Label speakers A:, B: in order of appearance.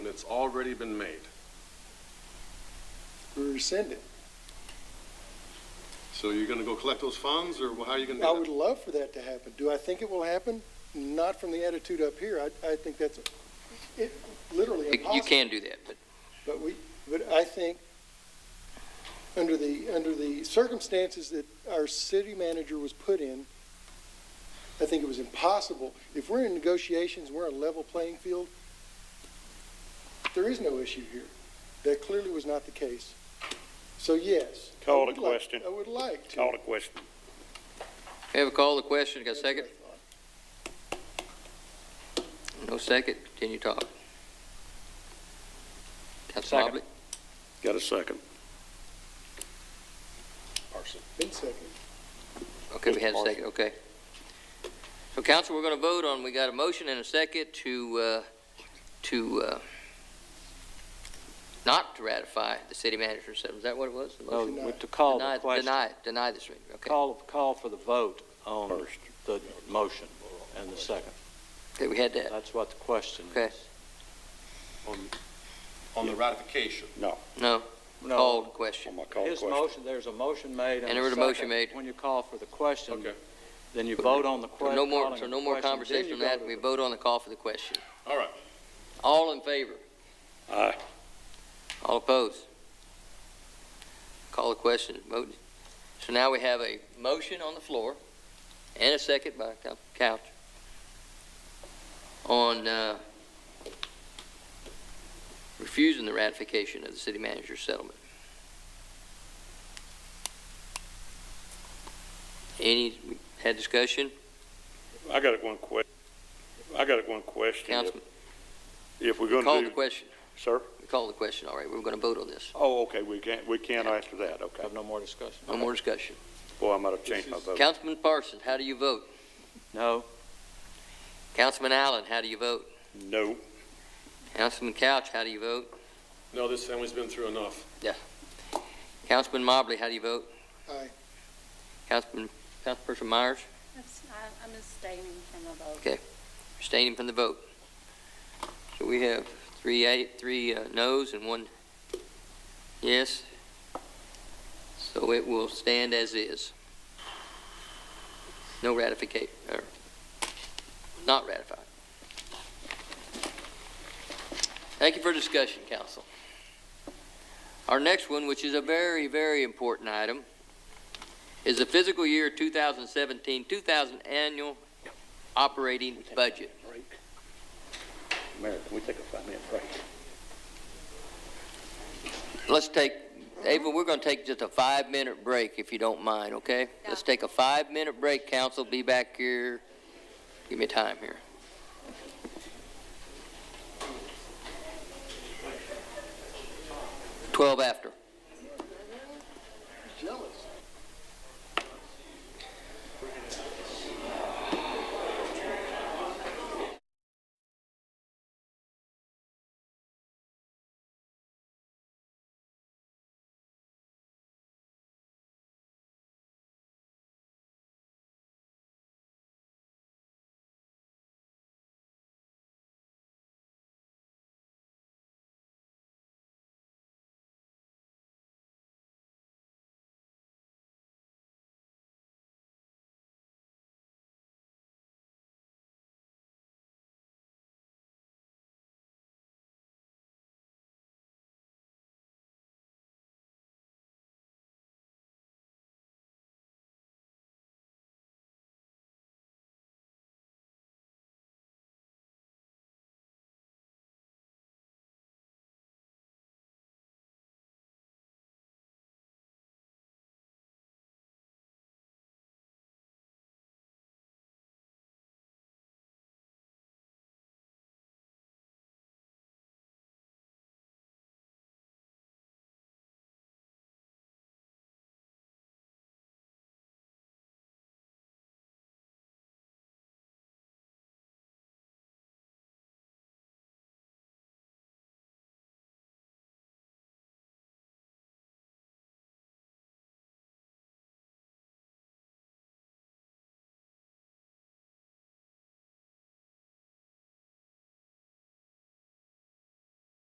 A: that's already been made.
B: we rescind it.
A: So you're gonna go collect those funds, or how are you gonna
B: I
A: do
B: would love for that to happen. Do I think it will happen? Not from the attitude up here. I, I think that's, it, literally
C: You- You
B: impossible.
C: can do that, but
B: But we, but I think, under the, under the circumstances that our city manager was put in, I think it was impossible. If we're in negotiations, we're on a level playing field, there is no issue here. That clearly was not the case. So yes. I
D: Call
B: would
D: to
B: like-
D: question.
B: I would like to.
D: Call the question.
C: we have a call, the question, got a
B: That's what I
C: second?
B: thought.
C: No second, continue talk. Councilman Mobley?
D: Got a second.
A: that? Parson.
B: Been second.
C: Okay, we had a
D: Parson.
C: second, okay. So council, we're going to vote on, we got a motion and a second to, uh, to uh, not to ratify the city manager's settlement. Is that what it was? The
E: No,
C: motion?
B: Deny.
E: Oh, we- to call
C: Deny-
E: the question,
C: Deny, deny this meeting, okay.
E: call, call for the vote on the motion and the second.
C: Okay, we had that.
E: That's what the question
C: Okay.
E: is.
A: On the ratification.
C: No, call the question.
D: I'm gonna call the
E: His
D: question.
E: motion, there's a motion made and a second.
C: And there was a motion made.
E: When you call for the question,
A: Okay,
E: then you vote on the
C: So
E: question.
C: no more, so no more conversation on that. We vote on the call for the question.
A: all right.
C: All in favor?
D: Aye.
C: All opposed? Call the question, vote. So now we have a motion on the floor and a second by Coun- Couch on uh, refusing the ratification of the city manager's settlement. Any, had discussion?
D: I got one que, I got one question. If-
C: Councilman,
D: If we're
C: call
D: gonna
C: the
D: do,
C: question.
D: sir?
C: We called the question, all right. We're going to vote on this.
D: Oh, okay, we can't, we can't after that, okay.
E: Have no more discussion?
C: No more discussion.
D: Boy, I might have changed my vote.
C: Councilman Parsons, how do you vote?
E: No,
C: Councilman Allen, how do you vote?
D: No.
C: Councilman Couch, how do you vote?
A: No, this family's been through enough.
C: Councilman Mobley, how do you vote?
B: Aye.
C: Councilman, Councilperson Myers,
F: That's- I- I'm abstaining from a vote.
C: abstaining from the vote. So we have three eight, three uh, noes and one yes. So it will stand as is. No ratificate, or not ratified. Thank you for discussion, council. Our next one, which is a very, very important item, is the fiscal year 2017, 2000 annual operating budget.
D: Mayor, can we take a five-minute break?
C: Let's take, Ava, we're going to take just a five-minute break, if you don't mind, okay? Let's take a five-minute break, council, be back here, give me time here. Twelve after.